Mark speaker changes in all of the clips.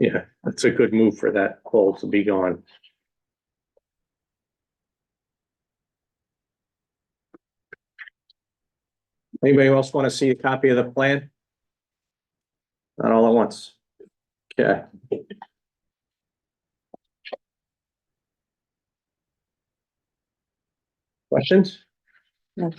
Speaker 1: Yeah, that's a good move for that hole to be gone. Anybody else want to see a copy of the plan? Not all at once. Okay. Questions?
Speaker 2: No.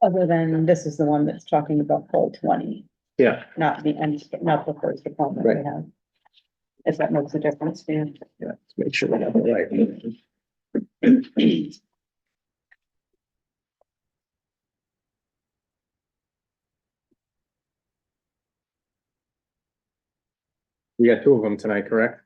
Speaker 2: Other than this is the one that's talking about poll twenty,
Speaker 1: Yeah.
Speaker 2: not the end, not the first appointment we
Speaker 1: Right.
Speaker 2: have. If that makes a difference, yeah.
Speaker 1: Yeah, let's make sure we have the right. We got two of them tonight, correct?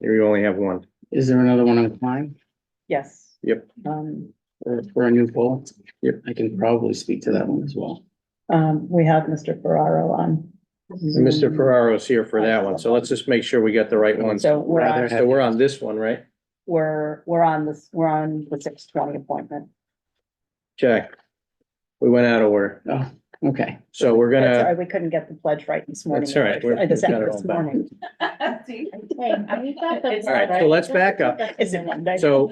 Speaker 1: Here you only have one.
Speaker 3: Is there another one on Klein
Speaker 2: Yes.
Speaker 1: Yep.
Speaker 2: Um,
Speaker 3: or for a new poll?
Speaker 1: Yep.
Speaker 3: I can probably speak to that one as well.
Speaker 2: um, we have Mr. Ferraro on.
Speaker 1: And Mr. Ferraro's here for that one, so let's just make sure we got the right one. So
Speaker 2: So we're, on-
Speaker 3: Rather-
Speaker 1: we're on this one, right?
Speaker 2: we're, we're on this, we're on the six twenty appointment.
Speaker 1: Check. We went out of order,
Speaker 3: Oh, okay.
Speaker 1: so we're
Speaker 2: That's all
Speaker 1: gonna,
Speaker 2: right, we couldn't get the pledge right this morning.
Speaker 1: That's all right, we're-
Speaker 2: I just had
Speaker 1: we've got it
Speaker 2: it this
Speaker 1: all back.
Speaker 2: morning.
Speaker 1: all right, so let's back up.
Speaker 2: Is it Monday?
Speaker 1: So-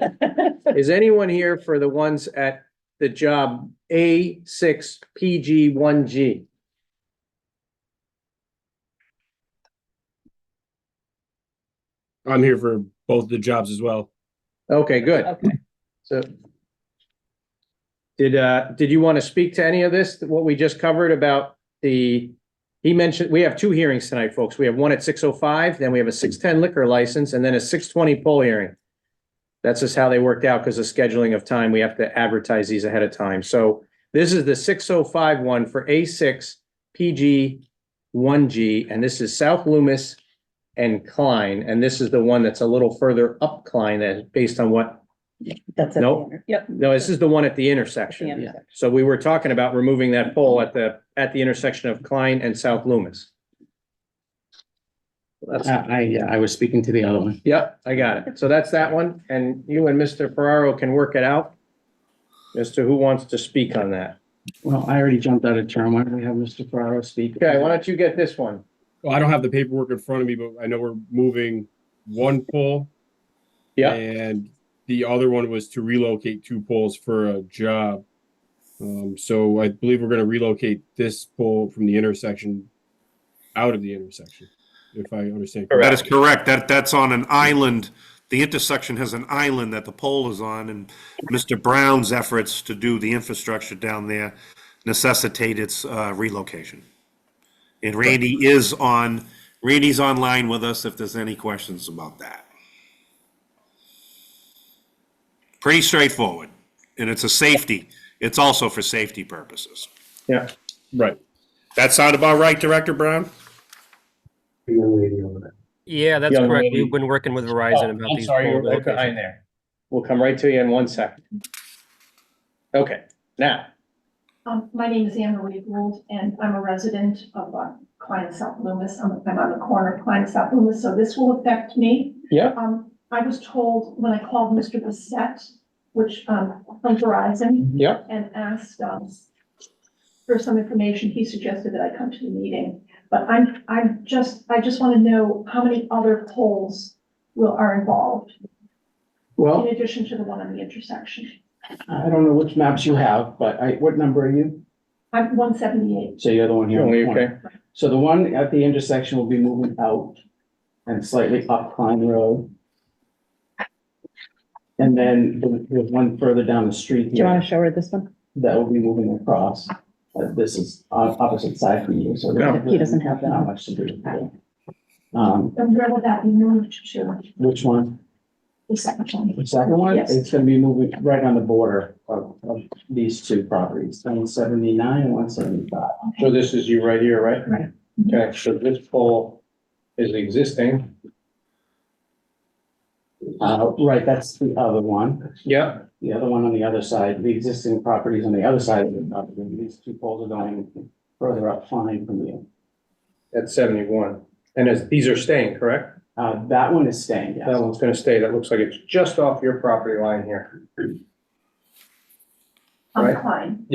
Speaker 1: Is anyone here for the ones at the job A six PG one G?
Speaker 4: I'm here for both the jobs as well.
Speaker 1: Okay, good.
Speaker 2: Okay.
Speaker 1: So did, uh, did you want to speak to any of this, what we just covered about the, he mentioned, we have two hearings tonight, folks. We have one at six oh five, then we have a six ten liquor license, and then a six twenty poll hearing. That's just how they worked out because of scheduling of time. We have to advertise these ahead of time. So this is the six oh five one for A six PG one G, and this is South Loomis and Klein, and this is the one that's a little further up Klein that, based on what
Speaker 2: That's it.
Speaker 1: Nope.
Speaker 2: Yep.
Speaker 1: no, this is the one at the
Speaker 2: Yeah.
Speaker 1: intersection. So we were talking about removing that pole at the, at the intersection of Klein and South Loomis. That's,
Speaker 3: I, I, yeah, I was speaking to the other one.
Speaker 1: yep, I got it. So that's that one, and you and Mr. Ferraro can work it out as to who wants to speak on that.
Speaker 3: Well, I already jumped out of term. Why don't we have Mr. Ferraro speak?
Speaker 1: Okay, why don't you get this one?
Speaker 4: Well, I don't have the paperwork in front of me, but I know we're moving one pole.
Speaker 1: Yeah,
Speaker 4: And the other one was to relocate two poles for a job. Um, so I believe we're gonna relocate this pole from the intersection out of the intersection, if I understand.
Speaker 5: That is
Speaker 4: correctly.
Speaker 5: correct. That, that's on an island. The intersection has an island that the pole is on, and Mr. Brown's efforts to do the infrastructure down there necessitate its uh, relocation. And Randy is on, Randy's online with us if there's any questions about that. Pretty straightforward, and it's a safety, it's also for safety purposes.
Speaker 1: yeah.
Speaker 4: Right.
Speaker 5: That sound about right, Director Brown?
Speaker 6: Yeah, that's
Speaker 1: Young
Speaker 6: correct.
Speaker 1: lady.
Speaker 6: We've been working with Verizon about
Speaker 1: I'm
Speaker 6: these.
Speaker 1: sorry,
Speaker 6: poll
Speaker 1: you're right
Speaker 6: relocations.
Speaker 1: behind there. We'll come right to you in one second. Okay, now,
Speaker 7: Um, my name is Anne Marie Gould, and I'm a resident of uh, Klein South Loomis. I'm, I'm on the corner of Klein South Loomis, so this will affect me.
Speaker 1: yeah,
Speaker 7: Um, I was told when I called Mr. Bissette, which, um, from Verizon,
Speaker 1: yeah,
Speaker 7: and asked, um, for some information, he suggested that I come to the meeting. But I'm, I'm just, I just want to know how many other polls will, are involved in
Speaker 3: Well,
Speaker 7: addition to the one on the intersection.
Speaker 3: I don't know which maps you have, but I, what number are you?
Speaker 7: I'm one seventy-eight.
Speaker 3: So you're the one here. on the
Speaker 1: Only, Oh, okay.
Speaker 3: corner. So the one at the intersection will be moving out and slightly up Klein Road. And then the, the one further down the street.
Speaker 2: Do you
Speaker 3: here.
Speaker 2: want to show her this one?
Speaker 3: that will be moving across. Uh, This is on opposite side from you, so.
Speaker 1: No.
Speaker 2: He doesn't have that.
Speaker 3: Not much to do. with that. Um,
Speaker 7: And where will that be moved to?
Speaker 3: which one?
Speaker 7: The second one.
Speaker 3: The second one?
Speaker 7: Yes.
Speaker 3: It's gonna be moving right on the border of, of these two properties, one seventy-nine and one seventy-five.
Speaker 1: So this is you right here, right?
Speaker 7: Right.
Speaker 1: Okay, so this pole is existing.
Speaker 3: Uh, right, that's the other one.
Speaker 1: Yep.
Speaker 3: The other one on the other side, the existing properties on the other side of the property, these two poles are going further up fine from you.
Speaker 1: At seventy-one. And as, these are staying, correct?
Speaker 3: Uh, that one is staying, yes.
Speaker 1: That one's gonna stay. That looks like it's just off your property line here.
Speaker 7: I'm
Speaker 1: Right.
Speaker 7: Klein.